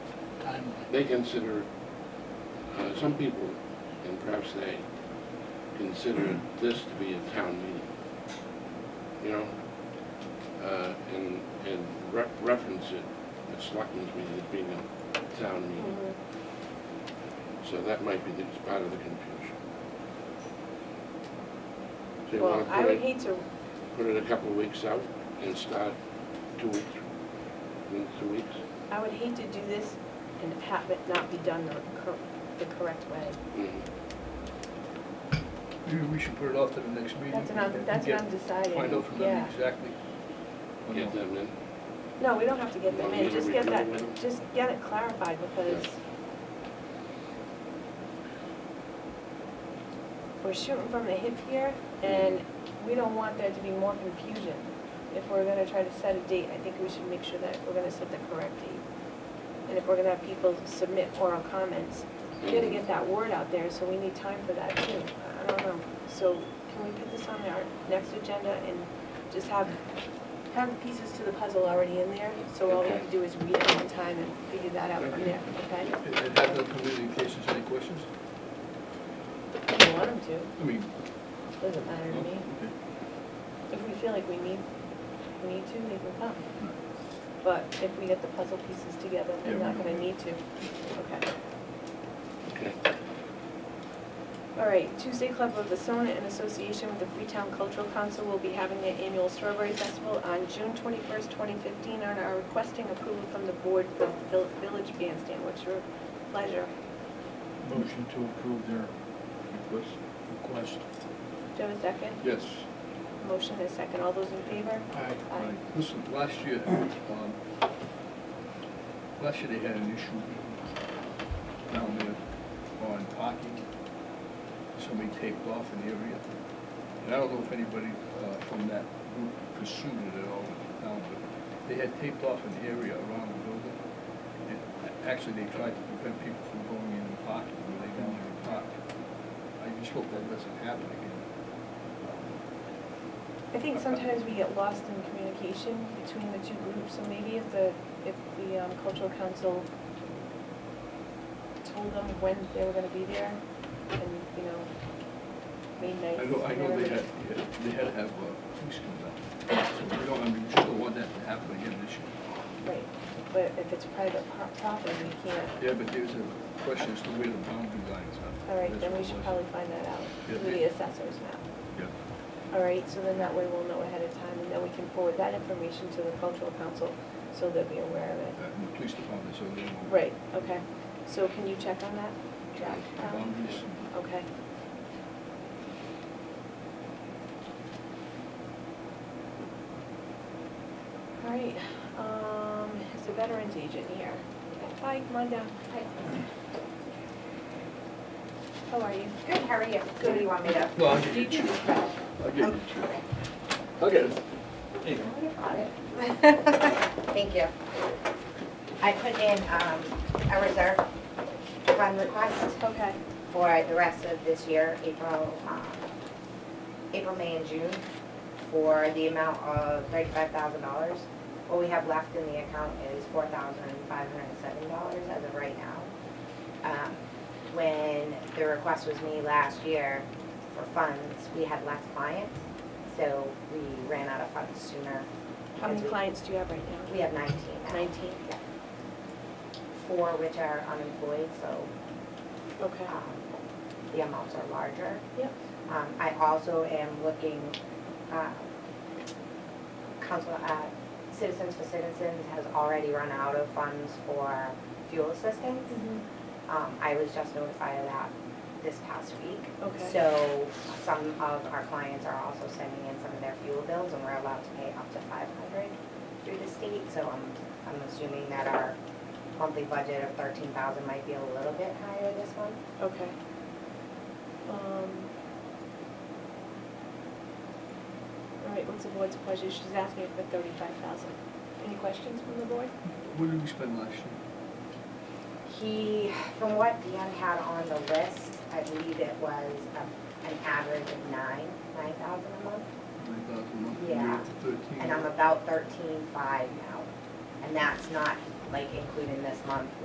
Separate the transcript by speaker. Speaker 1: they consider, uh, some people, and perhaps they, consider this to be a town meeting. You know? Uh, and, and re- reference it, at selectmen's meeting as being a town meeting. So that might be the, it's part of the confusion. So you wanna
Speaker 2: Well, I
Speaker 1: put
Speaker 2: would
Speaker 1: it,
Speaker 2: hate to,
Speaker 1: put it a couple of weeks out and start two weeks, in two weeks?
Speaker 2: I would hate to do this and have it not be done the cor- the correct way.
Speaker 1: Mhm.
Speaker 3: Maybe we should put it off to the next meeting.
Speaker 2: That's what I'm, that's what I'm deciding,
Speaker 3: Find out from
Speaker 2: yeah.
Speaker 3: them exactly. when
Speaker 1: Get
Speaker 3: the-
Speaker 1: them in.
Speaker 2: No, we don't have to get them in, just get that,
Speaker 1: Well, we- we-
Speaker 2: just get it clarified because we're shooting from the hip here and we don't want there to be more confusion. If we're gonna try to set a date, I think we should make sure that we're gonna set the correct date. And if we're gonna have people submit oral comments, we gotta get that word out there, so we need time for that too. I don't know, so can we put this on our next agenda and just have, have the pieces to the puzzle already in there? So all we have to do is read it one time and figure that out from there, okay?
Speaker 3: And and have them come in in case there's any questions.
Speaker 2: If you want them to,
Speaker 3: I mean.
Speaker 2: doesn't matter to me.
Speaker 3: okay.
Speaker 2: If we feel like we need, we need to, they can come. But if we get the puzzle pieces together, they're
Speaker 3: Yeah, we
Speaker 2: not
Speaker 3: know.
Speaker 2: gonna need to. Okay.
Speaker 1: Okay.
Speaker 2: All right, Tuesday Club of the Sona in association with the Freetown Cultural Council will be having their annual Strawberry Festival on June twenty-first, twenty fifteen, and are requesting approval from the board for the vill- village bandstand. What's your pleasure?
Speaker 4: Motion to approve their request. Request.
Speaker 2: Do you have a second?
Speaker 3: Yes.
Speaker 2: Motion is second. All those in favor?
Speaker 4: Aye.
Speaker 2: Aye.
Speaker 3: Listen, last year, um, last year they had an issue down there on parking. Somebody taped off an area. And I don't know if anybody uh, from that group pursued it at all in the town, but they had taped off an area around the building. And a- actually, they tried to prevent people from going in and parking where they down there and park. I just hope that doesn't happen again.
Speaker 2: I think sometimes we get lost in communication between the two groups, so maybe if the, if the um, cultural council told them when they were gonna be there, and, you know, made nice.
Speaker 3: I know, I know they
Speaker 2: whatever.
Speaker 3: had, they had to have uh, police come down, so we don't, I mean, we just don't want that to happen again this year.
Speaker 2: Right, but if it's private pro- property, we can't.
Speaker 3: Yeah, but there's a question as to where the boundary lines are.
Speaker 2: All right,
Speaker 3: That's
Speaker 2: then we
Speaker 3: what
Speaker 2: should
Speaker 3: was.
Speaker 2: probably find that out
Speaker 3: Yeah,
Speaker 2: through the
Speaker 3: yeah.
Speaker 2: assessor's map.
Speaker 3: Yeah,
Speaker 2: All right, so then that way we'll know ahead of time, and then we can forward that information to the cultural council, so they'll be aware of it.
Speaker 3: uh, and the police department, so they won't.
Speaker 2: Right, okay. So can you check on that? Jack? Um,
Speaker 3: Boundaries,
Speaker 2: Okay. All right, um, is the veterans agent here? Hi, come on down. Hi. How are you?
Speaker 5: Good, how are you? Good, do you want me to?
Speaker 3: No, I'll get you.
Speaker 5: Do you choose that?
Speaker 3: I'll get it, sure. I'll get it.
Speaker 5: I got it. Thank you. I put in um, a reserve fund request
Speaker 2: Okay,
Speaker 5: for the rest of this year, April, um, April, May, and June, for the amount of $35,000. What we have left in the account is $4,507 as of right now. Um, When the request was made last year for funds, we had less clients, so we ran out of funds sooner.
Speaker 2: how many
Speaker 5: because we-
Speaker 2: clients do you have right now?
Speaker 5: We have 19 now.
Speaker 2: 19?
Speaker 5: Yeah. Four which are unemployed, so
Speaker 2: Okay.
Speaker 5: um, the amounts are larger.
Speaker 2: Yep.
Speaker 5: Um, I also am looking, uh, council, uh, Citizens for Citizens has already run out of funds for fuel assistance. Um, I was just notified of that this past week.
Speaker 2: Okay.
Speaker 5: So some of our clients are also sending in some of their fuel bills and we're allowed to pay up to five hundred through the state. So I'm, I'm assuming that our monthly budget of thirteen thousand might be a little bit higher this month.
Speaker 2: Okay. Um, All right, what's the board's pleasure? She's asking for thirty-five thousand. Any questions from the board?
Speaker 3: What did we spend last year?
Speaker 5: He, from what Dan had on the list, I believe it was a- an average of nine, nine thousand a month.
Speaker 3: Nine thousand a month, we were
Speaker 5: Yeah.
Speaker 3: at thirteen.
Speaker 5: And I'm about thirteen-five now. And that's not like including this month